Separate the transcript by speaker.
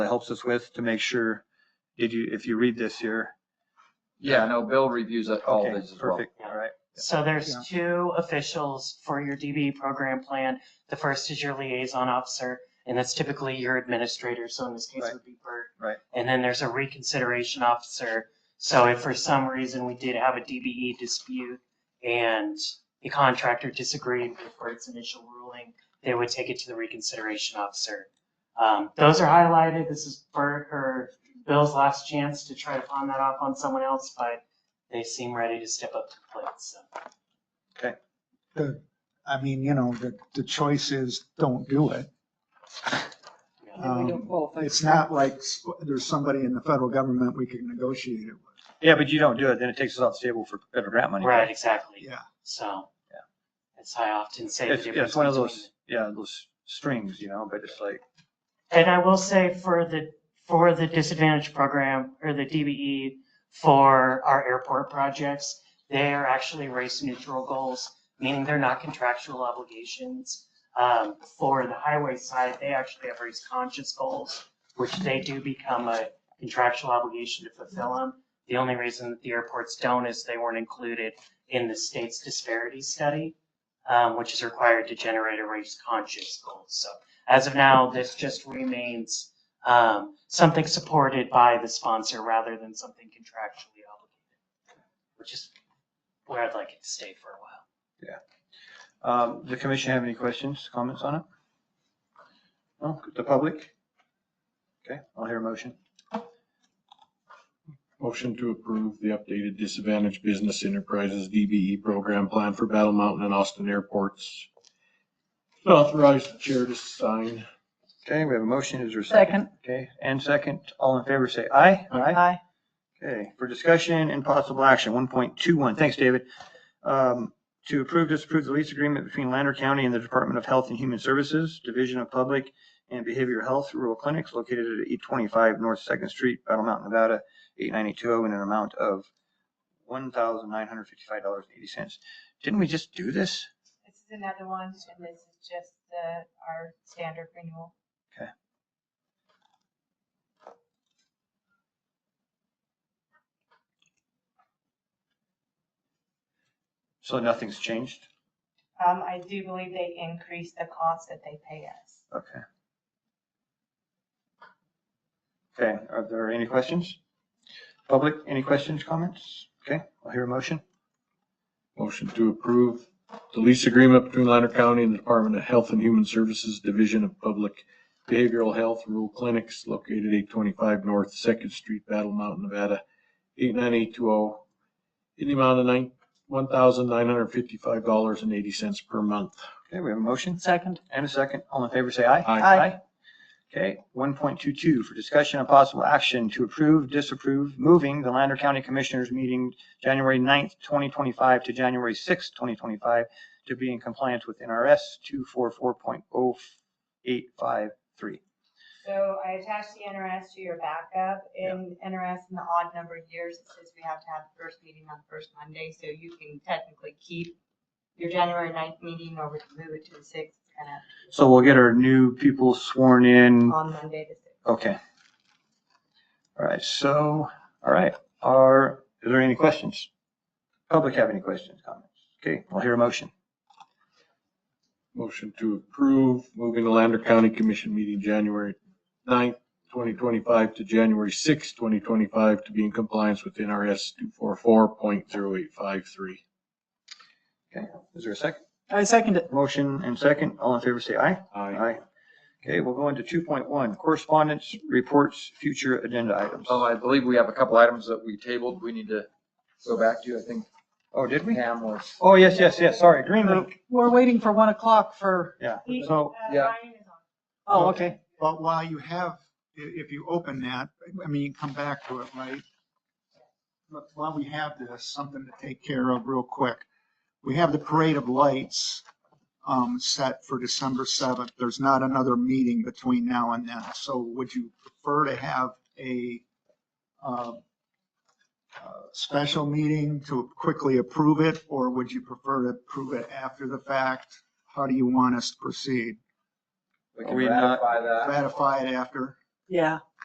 Speaker 1: that helps us with to make sure, did you, if you read this here.
Speaker 2: Yeah, no, Bill reviews it- all
Speaker 1: Okay,
Speaker 2: these as well.
Speaker 1: perfect, all right.
Speaker 3: So there's two officials for your DB program plan. The first is your liaison officer, and that's typically your administrator, so in this case
Speaker 1: Right.
Speaker 3: it would be Bert.
Speaker 1: Right.
Speaker 3: And then there's a reconsideration officer, so if for some reason we did have a DBE dispute and the contractor disagreed with Bert's initial ruling, they would take it to the reconsideration officer. Um, those are highlighted, this is Bert or Bill's last chance to try to pawn that off on someone else, but they seem ready to step up to the plate, so.
Speaker 4: I mean, you know, the, the choice is don't do it.
Speaker 5: And we don't
Speaker 4: Um,
Speaker 5: qualify.
Speaker 4: It's not like sp- there's somebody in the federal government we can negotiate it with.
Speaker 1: Yeah, but you don't do it, then it takes us off the table for federal grant money.
Speaker 3: Right, exactly.
Speaker 4: Yeah.
Speaker 3: So.
Speaker 1: Yeah.
Speaker 3: That's how I often say the
Speaker 1: It's, yeah,
Speaker 3: difference.
Speaker 1: it's one of
Speaker 3: between
Speaker 1: those, yeah, those strings, you know, but it's like,
Speaker 3: the- And I will say for the, for the disadvantaged program or the DBE for our airport projects, they are actually race neutral goals, meaning they're not contractual obligations. Um, for the highway side, they actually have race conscious goals, which they do become a contractual obligation to fulfill them. The only reason that the airports don't is they weren't included in the state's disparity study, um, which is required to generate a race conscious goal. So as of now, this just remains um, something supported by the sponsor rather than something contractually obligated, which is where I'd like it to stay for a while.
Speaker 1: um, the commission have any questions, comments on it? No, the public? Okay, I'll hear a motion.
Speaker 6: Motion to approve the updated disadvantaged business enterprises DBE program plan for Battle Mountain and Austin airports. Authorize the chair to sign.
Speaker 1: Okay, we have a motion, is there a second?
Speaker 5: Second.
Speaker 1: Okay, and second, all in favor say aye.
Speaker 5: Aye.
Speaker 1: Okay, for discussion and possible action, one point two one, thanks, David. Um, to approve, disapprove the lease agreement between Lander County and the Department of Health and Human Services, Division of Public and Behavioral Health Rural Clinics located at eight twenty-five North Second Street, Battle Mountain, Nevada, eight nine eight two oh, in an amount of one thousand nine hundred fifty-five dollars and eighty cents. Didn't we just do this?
Speaker 7: This is another one, and this is just the, our standard renewal.
Speaker 1: So nothing's changed?
Speaker 7: Um, I do believe they increased the cost that they pay us.
Speaker 1: Okay. Okay, are there any questions? Public, any questions, comments? Okay, I'll hear a motion.
Speaker 6: Motion to approve the lease agreement between Lander County and the Department of Health and Human Services Division of Public Behavioral Health Rural Clinics located eight twenty-five North Second Street, Battle Mountain, Nevada, eight nine eight two oh. In the amount of nine, one thousand nine hundred fifty-five dollars and eighty cents per month.
Speaker 1: Okay, we have a motion
Speaker 5: Second.
Speaker 1: and a second. All in favor, say aye.
Speaker 6: Aye.
Speaker 5: Aye.
Speaker 1: Okay, one point two two, for discussion and possible action to approve, disapprove, moving the Lander County Commissioners meeting January 9th, twenty twenty-five to January sixth, twenty twenty-five to be in compliance with NRS two four four point oh eight five three.
Speaker 7: So I attached the NRS to your backup. In NRS, in the odd number of years, it says we have to have the first meeting on the first Monday, so you can technically keep your January ninth meeting or we can move it to the sixth, kind of
Speaker 1: So we'll get our new people sworn in.
Speaker 7: on Monday the sixth.
Speaker 1: Okay. All right, so, all right, are, is there any questions? Public have any questions, comments? Okay, I'll hear a motion.
Speaker 6: Motion to approve, moving the Lander County Commission meeting January 9th, 2025 to January 6th, 2025 to be in compliance with NRS 244.0853.
Speaker 1: Okay, is there a second?
Speaker 5: I second it.
Speaker 1: Motion and second, all in favor say aye. Aye. Okay, we'll go into two point one, correspondence, reports, future agenda items.
Speaker 2: Oh, I believe we have a couple items that we tabled. We need to go back to. I think
Speaker 1: Oh, did we?
Speaker 2: Pam was,
Speaker 1: Oh, yes, yes, yes, sorry, green link,
Speaker 5: We're waiting for one o'clock for,
Speaker 1: yeah, so,
Speaker 2: yeah.
Speaker 7: Uh,
Speaker 5: oh, okay.
Speaker 4: But while you have, i- if you open that, I mean, you come back to it, right? But while we have this, something to take care of real quick. We have the parade of lights, um, set for December 7th. There's not another meeting between now and then. So would you prefer to have a, uh, uh, special meeting to quickly approve it, or would you prefer to approve it after the fact? How do you want us to proceed?
Speaker 2: we can
Speaker 1: We not-
Speaker 2: ratify that.
Speaker 4: Ratify it after?
Speaker 5: Yeah,